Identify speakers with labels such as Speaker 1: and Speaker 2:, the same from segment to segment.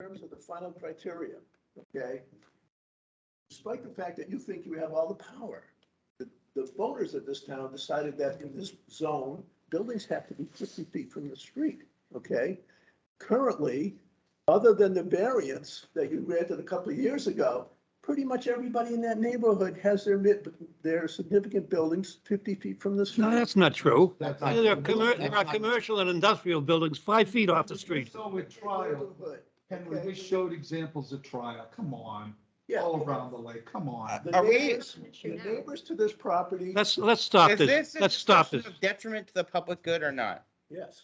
Speaker 1: terms of the final criteria, okay? Despite the fact that you think you have all the power, the, the voters of this town decided that in this zone, buildings have to be fifty feet from the street, okay? Currently, other than the variance that you granted a couple of years ago, pretty much everybody in that neighborhood has their, mid- their significant buildings fifty feet from the street.
Speaker 2: No, that's not true.
Speaker 3: That's not-
Speaker 2: There are, commer- there are
Speaker 3: that's not-
Speaker 2: commercial and industrial buildings five feet off the street.
Speaker 3: So with trial,
Speaker 1: Neighborhood.
Speaker 3: Henry, we showed examples of trial, come on,
Speaker 1: Yeah.
Speaker 3: all around the lake, come on.
Speaker 1: The
Speaker 4: Are we-
Speaker 1: neighbors, the neighbors to this property,
Speaker 2: Let's, let's stop
Speaker 4: Is
Speaker 2: this.
Speaker 4: this a
Speaker 2: Let's stop this.
Speaker 4: discussion of Detriment to the public good or not?
Speaker 1: yes,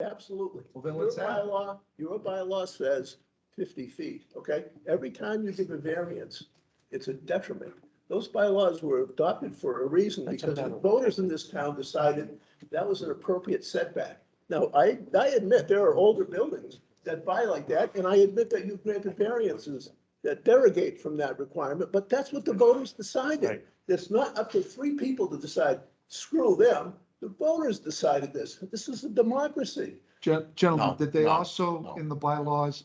Speaker 1: absolutely.
Speaker 3: Well, then
Speaker 1: Your
Speaker 3: let's have it.
Speaker 1: bylaw, your bylaw says fifty feet, okay? Every time you give a variance, it's a detriment. Those bylaws were adopted for a reason
Speaker 5: That's a
Speaker 1: because the
Speaker 5: better word.
Speaker 1: voters in this town decided that was an appropriate setback. Now, I, I admit there are older buildings that buy like that, and I admit that you've granted variances that derogate from that requirement, but that's what the voters decided.
Speaker 5: Right.
Speaker 1: It's not up to three people to decide, screw them. The voters decided this. This is a democracy.
Speaker 3: Gen- Gentlemen,
Speaker 5: No,
Speaker 3: did they
Speaker 5: no,
Speaker 3: also,
Speaker 5: no.
Speaker 3: in the bylaws,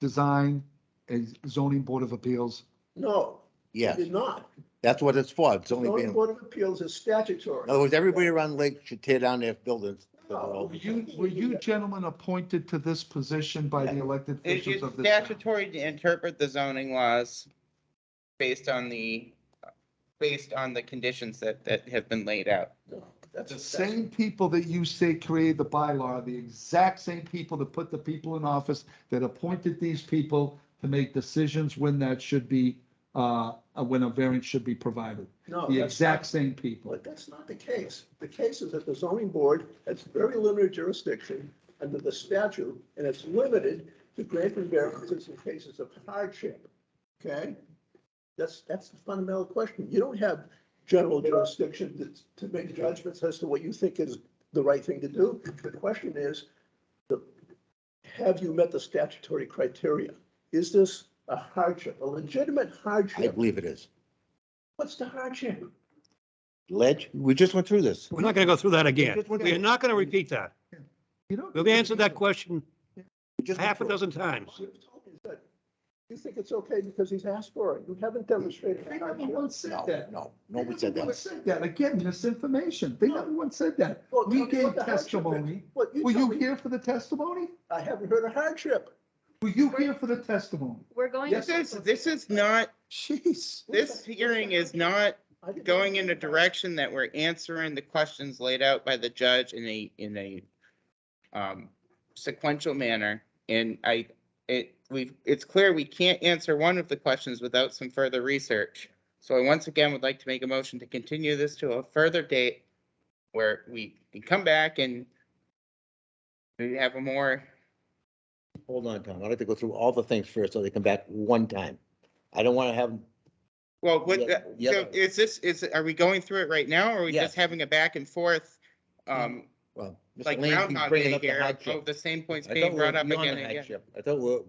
Speaker 3: design a zoning board of appeals?
Speaker 1: No,
Speaker 5: Yes,
Speaker 1: did not.
Speaker 5: that's what it's for. It's only
Speaker 1: Zoning
Speaker 5: being, in
Speaker 1: Board of Appeals is statutory.
Speaker 5: other words, everybody around the lake should tear down their buildings.
Speaker 4: Oh,
Speaker 1: No.
Speaker 3: Were you, were you gentlemen appointed to this position by the elected
Speaker 4: It-
Speaker 3: officials
Speaker 4: It's
Speaker 3: of this town?
Speaker 4: statutory to interpret the zoning laws based on the, based on the conditions that, that have been laid out.
Speaker 1: No, That's
Speaker 3: The
Speaker 1: that's-
Speaker 3: same people that you say created the bylaw, are the exact same people that put the people in office, that appointed these people to make decisions when that should be, uh, uh, when a variance should be provided.
Speaker 1: No,
Speaker 3: The
Speaker 1: Oh, that's not-
Speaker 3: exact same people.
Speaker 1: But that's not the case. The case is that the zoning board has very limited jurisdiction under the statute, and it's limited to granting variances in cases of hardship, okay? That's, that's the fundamental question. You don't have general jurisdiction to, to make judgments as to what you think is the right thing to do. The question is, the, have you met the statutory criteria? Is this a hardship, a legitimate
Speaker 5: I
Speaker 1: hardship?
Speaker 5: believe it is.
Speaker 1: What's the hardship?
Speaker 5: Ledge, we just went through this.
Speaker 2: We're not going to go through that again. We are not going to repeat that.
Speaker 3: You don't-
Speaker 2: We've answered that question
Speaker 5: We just went
Speaker 2: half a
Speaker 5: through it.
Speaker 2: dozen times.
Speaker 1: You've told me that you think it's okay because he's asked for it. You haven't demonstrated.
Speaker 3: They never once said
Speaker 5: No,
Speaker 3: that.
Speaker 5: no,
Speaker 3: They
Speaker 5: no one said
Speaker 3: never once
Speaker 5: that.
Speaker 3: said that. Again, misinformation. They never once said that.
Speaker 1: Well,
Speaker 3: We
Speaker 1: tell me what
Speaker 3: gave
Speaker 1: the hardship is.
Speaker 3: testimony.
Speaker 1: What, you
Speaker 3: Were
Speaker 1: tell
Speaker 3: you
Speaker 1: me,
Speaker 3: here for the testimony?
Speaker 1: I haven't heard a hardship.
Speaker 3: Were you here for the testimony?
Speaker 6: We're going.
Speaker 4: This is, this is not,
Speaker 3: Jeez.
Speaker 4: this hearing is not
Speaker 1: I didn't-
Speaker 4: going in a direction that we're answering the questions laid out by the judge in a, in a um, sequential manner. And I, it, we, it's clear we can't answer one of the questions without some further research. So I once again would like to make a motion to continue this to a further date where we can come back and we have a more,
Speaker 5: Hold on, Tom. I'd like to go through all the things first so they come back one time. I don't want to have,
Speaker 4: well, what,
Speaker 5: Yeah, yeah.
Speaker 4: so is this, is, are we going through it right now? Or are we
Speaker 5: Yes.
Speaker 4: just having a back and forth? Um,
Speaker 5: well, Mr.
Speaker 4: like
Speaker 5: Lane keeps
Speaker 4: Groundhog
Speaker 5: bringing
Speaker 4: Day
Speaker 5: up the
Speaker 4: here,
Speaker 5: hardship.
Speaker 4: of the same points
Speaker 5: I thought
Speaker 4: being
Speaker 5: we were
Speaker 4: brought up again
Speaker 5: beyond
Speaker 4: and
Speaker 5: the
Speaker 4: again.
Speaker 5: hardship. I thought we we're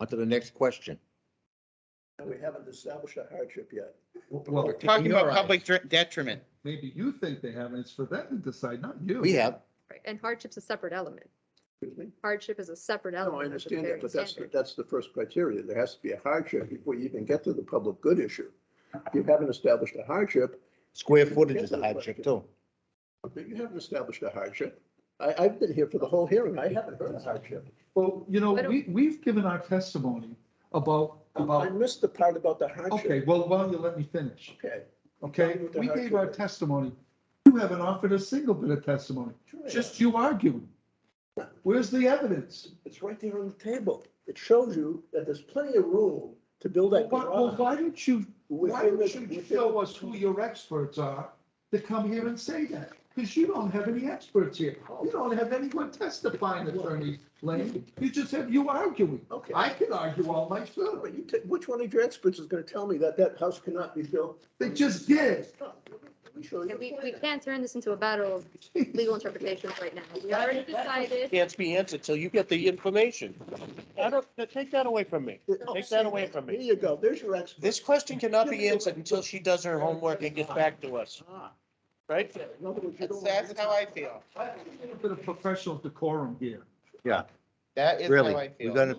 Speaker 5: on to the next question.
Speaker 1: We haven't established a hardship yet.
Speaker 3: Well,
Speaker 5: in
Speaker 4: Talking
Speaker 5: your
Speaker 4: about
Speaker 5: eyes.
Speaker 4: public dre- detriment.
Speaker 3: maybe you think they haven't. It's for them to decide, not you.
Speaker 5: We have,
Speaker 6: And hardship's a separate element.
Speaker 1: Excuse me?
Speaker 6: Hardship is a separate
Speaker 1: No, I
Speaker 6: element. of the
Speaker 1: understand that,
Speaker 6: Bavarian
Speaker 1: but that's,
Speaker 6: standard.
Speaker 1: that's the first criteria. There has to be a hardship before you even get to the public good issue. If you haven't established a hardship,
Speaker 5: square footage is a hardship too.
Speaker 1: you haven't established a hardship. I, I've been here for the whole hearing. I haven't heard a hardship.
Speaker 3: Well, you know,
Speaker 6: Why don't-
Speaker 3: we, we've given our testimony about,
Speaker 1: I
Speaker 3: about,
Speaker 1: missed the part about the
Speaker 3: okay,
Speaker 1: hardship.
Speaker 3: well, why don't you let me finish,
Speaker 1: Okay.
Speaker 3: okay?
Speaker 1: Tell me what the
Speaker 3: We
Speaker 1: hardship
Speaker 3: gave our
Speaker 1: is.
Speaker 3: testimony. You haven't offered a single bit of testimony, just you arguing. Where's the evidence?
Speaker 1: It's right there on the table. It shows you that there's plenty of room to build
Speaker 3: Well,
Speaker 1: that
Speaker 3: why- well,
Speaker 1: garage.
Speaker 3: why don't you, why
Speaker 1: within the-
Speaker 3: don't you
Speaker 1: within-
Speaker 3: show us who your experts are to come here and say that? Because you don't have any experts here. You don't have anyone testifying, Attorney Lane. You just have you arguing.
Speaker 1: Okay,
Speaker 3: I can argue all myself.
Speaker 1: but you, ta- which one of your experts is gonna tell me that that house cannot be built?
Speaker 3: They just did.
Speaker 1: No, We show you.
Speaker 6: And we,
Speaker 1: the
Speaker 6: we
Speaker 1: plan.
Speaker 6: can't turn this into a battle of legal interpretations right now. We already decided.
Speaker 7: can't be answered till you get the information. I don't, now take that away from me.
Speaker 1: Oh,
Speaker 7: Take
Speaker 1: see,
Speaker 7: that away from
Speaker 1: There
Speaker 7: me.
Speaker 1: you go, there's your expert.
Speaker 7: This question cannot be answered until she does her homework and gets back to us,
Speaker 1: Ah,
Speaker 7: right?
Speaker 1: in other words, you
Speaker 4: That's,
Speaker 1: don't wanna
Speaker 4: that's
Speaker 1: answer-
Speaker 4: how I feel.
Speaker 3: I think there's A little bit of professional decorum here.
Speaker 4: That is how
Speaker 5: Really,
Speaker 4: I
Speaker 5: we
Speaker 4: feel.
Speaker 5: gotta